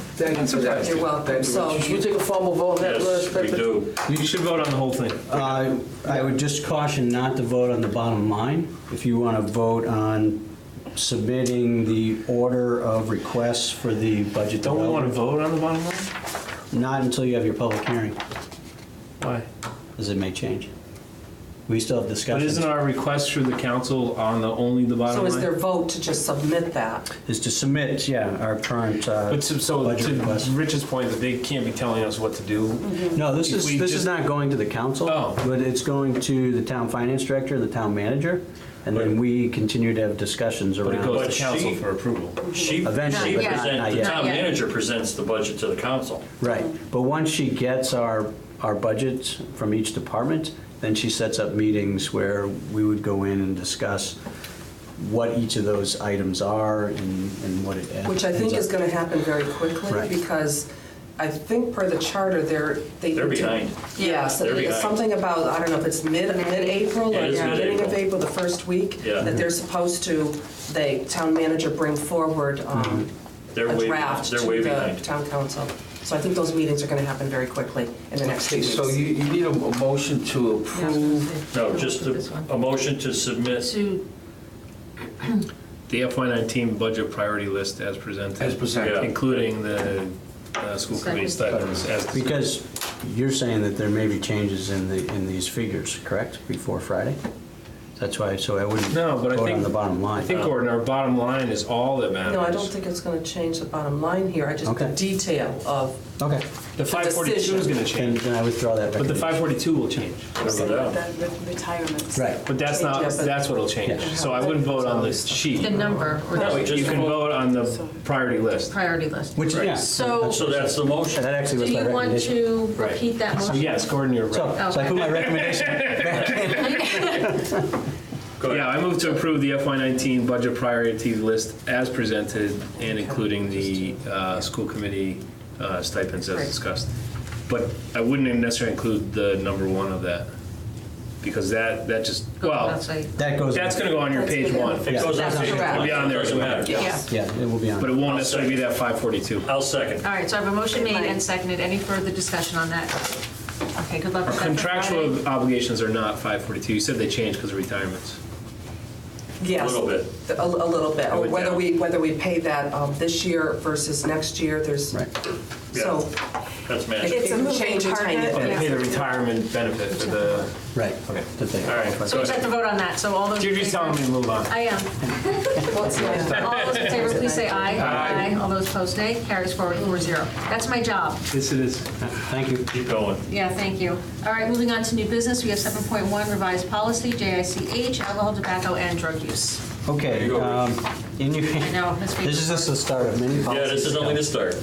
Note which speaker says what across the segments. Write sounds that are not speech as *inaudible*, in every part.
Speaker 1: Thank you for that.
Speaker 2: You're welcome.
Speaker 1: Thank you very
Speaker 2: So
Speaker 1: much.
Speaker 2: you take a formal vote on that,
Speaker 3: Yes,
Speaker 2: Liz?
Speaker 3: we do.
Speaker 4: You should vote on the whole thing.
Speaker 5: Uh, I would just caution not to vote on the bottom line. If you want to vote on submitting the order of requests for the budget
Speaker 4: Don't we want to
Speaker 5: development,
Speaker 4: vote on the bottom line?
Speaker 5: not until you have your public hearing,
Speaker 4: Why?
Speaker 5: as it may change. We still have
Speaker 4: But
Speaker 5: discussions.
Speaker 4: isn't our request through the council on the, only the bottom
Speaker 2: So
Speaker 4: line?
Speaker 2: is their vote to just submit that?
Speaker 5: Is to submit, yeah, our current uh,
Speaker 4: But so- so
Speaker 5: budget request.
Speaker 4: to Rich's point, that they can't be telling us what to do.
Speaker 5: No, this
Speaker 4: If
Speaker 5: is,
Speaker 4: we
Speaker 5: this is
Speaker 4: just-
Speaker 5: not going to the council.
Speaker 4: Oh.
Speaker 5: But it's going to the town finance director, the town manager, and then we continue to have discussions
Speaker 4: But
Speaker 5: around.
Speaker 4: it goes
Speaker 3: But
Speaker 4: to
Speaker 3: she-
Speaker 4: council for approval.
Speaker 3: She, she
Speaker 5: Eventually,
Speaker 6: but not-
Speaker 3: presents,
Speaker 5: not
Speaker 3: the
Speaker 5: yet.
Speaker 3: town
Speaker 6: Not yet.
Speaker 3: manager presents the budget to the council.
Speaker 5: Right, but once she gets our, our budgets from each department, then she sets up meetings where we would go in and discuss what each of those items are and, and what it adds.
Speaker 2: Which I think is gonna happen very quickly,
Speaker 5: Right.
Speaker 2: because I think per the charter, they're, they.
Speaker 3: They're behind.
Speaker 2: Yes,
Speaker 3: They're
Speaker 2: it's
Speaker 3: behind.
Speaker 2: something about, I don't know if it's mid, mid-April
Speaker 3: Yeah,
Speaker 2: or
Speaker 3: it is
Speaker 2: beginning of
Speaker 3: mid-April.
Speaker 2: April, the first week,
Speaker 3: Yeah.
Speaker 2: that they're supposed to, the town manager bring forward um,
Speaker 3: Mm-hmm. They're
Speaker 2: a
Speaker 3: way-
Speaker 2: draft to
Speaker 3: they're way
Speaker 2: the
Speaker 3: behind.
Speaker 2: town council. So I think those meetings are gonna happen very quickly in the next two
Speaker 1: Okay,
Speaker 2: weeks.
Speaker 1: so you, you need a a motion to approve.
Speaker 3: No, just
Speaker 6: This
Speaker 3: a,
Speaker 6: one.
Speaker 3: a motion to submit
Speaker 6: To,
Speaker 4: The FY19 budget priority list as presented.
Speaker 1: As presented.
Speaker 3: Yeah.
Speaker 4: Including the uh, school committee stipends as.
Speaker 5: Because you're saying that there may be changes in the, in these figures, correct, before Friday? That's why, so I wouldn't
Speaker 4: No, but I
Speaker 5: vote on
Speaker 4: think-
Speaker 5: the bottom
Speaker 4: I
Speaker 5: line.
Speaker 4: think, Gordon, our bottom line is all that matters.
Speaker 2: No, I don't think it's gonna change the bottom line here, I just, the
Speaker 5: Okay.
Speaker 2: detail of,
Speaker 5: Okay,
Speaker 4: The 542 is going to
Speaker 5: then,
Speaker 4: change,
Speaker 5: then I withdraw that
Speaker 4: but the 542
Speaker 5: recommendation.
Speaker 4: will change.
Speaker 3: Whatever that.
Speaker 7: The re- retirements.
Speaker 5: Right.
Speaker 4: But that's not,
Speaker 2: Yeah, but-
Speaker 4: that's what'll change.
Speaker 5: Yeah.
Speaker 4: So I wouldn't vote on the sheet.
Speaker 6: the number or
Speaker 3: No,
Speaker 6: the
Speaker 3: we
Speaker 4: You
Speaker 3: just
Speaker 4: can
Speaker 3: vote.
Speaker 4: vote on the priority list.
Speaker 6: priority list.
Speaker 5: Which, yeah.
Speaker 6: So-
Speaker 3: So that's the motion.
Speaker 5: That actually
Speaker 6: Do
Speaker 5: was my
Speaker 6: you want
Speaker 5: recommendation.
Speaker 6: to
Speaker 4: Right.
Speaker 6: repeat that
Speaker 4: So
Speaker 6: motion?
Speaker 4: yes, Gordon, you're right.
Speaker 5: So, so I put my recommendation
Speaker 3: Go
Speaker 4: Yeah,
Speaker 3: ahead.
Speaker 4: I move to approve the FY19 budget priority list as presented and including the uh, school committee uh, stipends as
Speaker 2: Right.
Speaker 4: discussed. But I wouldn't necessarily include the number one of that, because that, that just,
Speaker 2: Oh,
Speaker 6: Go
Speaker 4: well,
Speaker 6: outside.
Speaker 5: That goes.
Speaker 4: that's going to go on your
Speaker 2: That's
Speaker 4: page
Speaker 2: within-
Speaker 4: one.
Speaker 3: It goes on
Speaker 2: That's
Speaker 3: page
Speaker 2: correct.
Speaker 3: one.
Speaker 4: It'll be on there.
Speaker 3: Doesn't matter.
Speaker 6: Yeah.
Speaker 5: Yeah, it will be on.
Speaker 4: But it won't necessarily be that 542.
Speaker 3: I'll second.
Speaker 6: All right, so I have a motion made and seconded. Any further discussion on that? Okay, good luck with that. for Friday.
Speaker 4: Contractual obligations are not 542. You said they changed because of retirements.
Speaker 2: yes.
Speaker 3: little bit.
Speaker 2: A a little bit,
Speaker 3: Go
Speaker 2: or
Speaker 3: down.
Speaker 2: whether we, whether we pay that um, this year versus next year, there's,
Speaker 5: Right.
Speaker 2: so
Speaker 3: That's magic.
Speaker 2: it
Speaker 7: It's a
Speaker 2: can
Speaker 7: moving
Speaker 2: change a tiny
Speaker 7: target.
Speaker 3: Oh,
Speaker 2: bit.
Speaker 4: They pay the retirement benefit for the,
Speaker 5: Right.
Speaker 4: Okay.
Speaker 5: That they-
Speaker 3: All right,
Speaker 6: So we just have to vote on that, so all those. in
Speaker 4: you're just
Speaker 6: favor-
Speaker 4: telling me to move on.
Speaker 6: I *laughs* am. All those in favor, please say aye. Aye. All those opposed, nay. Carries forward, four zero. That's my job.
Speaker 4: Yes, it is.
Speaker 5: Thank you.
Speaker 3: Keep going.
Speaker 6: Yeah, thank you. All right, moving on to new business, we have 7.1 revised policy, JICH, alcohol, tobacco, and drug use.
Speaker 5: Okay.
Speaker 3: go,
Speaker 5: um, In your,
Speaker 6: know, Miss
Speaker 5: this is just the start of many
Speaker 3: Yeah,
Speaker 5: policies.
Speaker 3: this is only the start.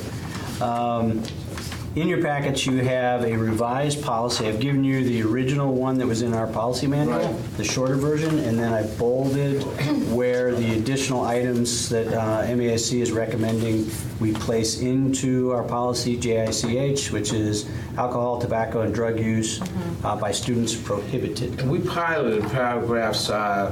Speaker 5: In your packets, you have a revised policy. I've given you the original one that was in our policy manual, the shorter version, and then I bolded where the additional items that uh, MASC is recommending we place into our policy, JICH, which is alcohol, tobacco, and drug use uh, by students prohibited.
Speaker 1: And we piloted paragraphs uh,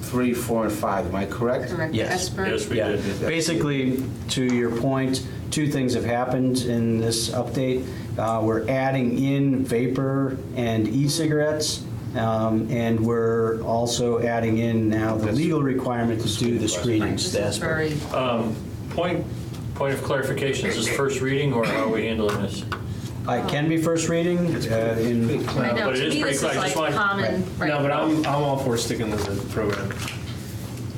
Speaker 1: three, four, and five, am I correct?
Speaker 6: Director
Speaker 5: Yes.
Speaker 6: Esper.
Speaker 3: Yes, we
Speaker 5: Yeah,
Speaker 3: did.
Speaker 5: basically, to your point, two things have happened in this update. Uh, We're adding in vapor and e-cigarettes, um, and we're also adding in now the legal requirement to do the screenings.
Speaker 6: This
Speaker 5: the
Speaker 6: is
Speaker 5: ASPR.
Speaker 6: very,
Speaker 3: Point, point of clarification, is this first reading or how are we handling this?
Speaker 5: Uh, It can be first reading. uh, in-
Speaker 6: I know,
Speaker 3: But it
Speaker 6: to
Speaker 3: is
Speaker 6: me,
Speaker 3: pretty
Speaker 6: this is
Speaker 3: clear. I
Speaker 6: like
Speaker 3: just wanted-
Speaker 6: common,
Speaker 4: No, but
Speaker 6: right?
Speaker 4: I'm, I'm all for sticking to the program.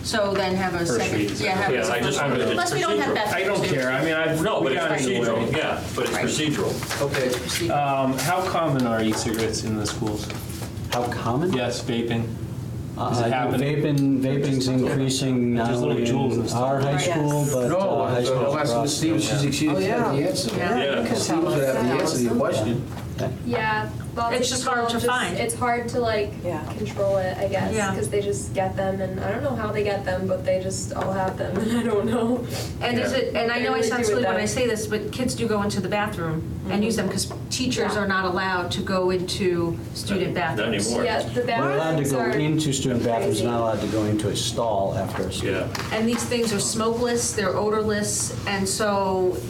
Speaker 6: So then have a second,
Speaker 4: reading.
Speaker 6: yeah, have
Speaker 3: Yeah,
Speaker 6: a
Speaker 3: I just wanted to-
Speaker 6: Unless we don't have
Speaker 3: procedural.
Speaker 6: Beth.
Speaker 4: I don't care, I mean, I've.
Speaker 3: No, but
Speaker 4: we
Speaker 3: it's
Speaker 4: got in the way.
Speaker 3: procedural, yeah, but it's
Speaker 6: Right.
Speaker 3: procedural.
Speaker 1: Okay,
Speaker 4: Um, how common are e-cigarettes in the schools?
Speaker 5: How common?
Speaker 4: Yes, vaping.
Speaker 5: Uh,
Speaker 4: Is it happening?
Speaker 5: Vaping, vaping's increasing not
Speaker 4: Just
Speaker 5: only
Speaker 4: little joules and
Speaker 5: in
Speaker 4: stuff.
Speaker 5: our high
Speaker 7: Yes.
Speaker 5: school, but
Speaker 1: no,
Speaker 5: uh, high
Speaker 1: I
Speaker 5: schools
Speaker 1: was
Speaker 5: across.
Speaker 1: Steve, she's, she's
Speaker 2: Oh, yeah.
Speaker 1: had the answer.
Speaker 3: Yeah.
Speaker 2: You can
Speaker 1: Steve
Speaker 2: tell
Speaker 1: was
Speaker 2: us
Speaker 1: at the
Speaker 2: that.
Speaker 1: answer to your question.
Speaker 8: Yeah, well,
Speaker 6: It's
Speaker 8: they
Speaker 6: just hard to
Speaker 8: don't
Speaker 6: find.
Speaker 8: It's hard to like
Speaker 7: Yeah.
Speaker 8: control it, I guess,
Speaker 6: Yeah.
Speaker 8: because they just get them, and I don't know how they get them, but they just all have them, *laughs* and I don't know.
Speaker 6: And is it, and I know I sound silly when I say this, but kids do go into the bathroom
Speaker 4: Mm-hmm.
Speaker 6: and use them because teachers are not allowed to go into student
Speaker 3: Not- not
Speaker 6: bathrooms.
Speaker 3: anymore.
Speaker 8: Yeah, the
Speaker 5: We're allowed to
Speaker 8: bathrooms
Speaker 5: go
Speaker 8: are.
Speaker 5: into student bathrooms,
Speaker 8: crazy.
Speaker 5: not allowed to go into a stall after a student.
Speaker 3: Yeah.
Speaker 6: And these things are smokeless, they're odorless, and so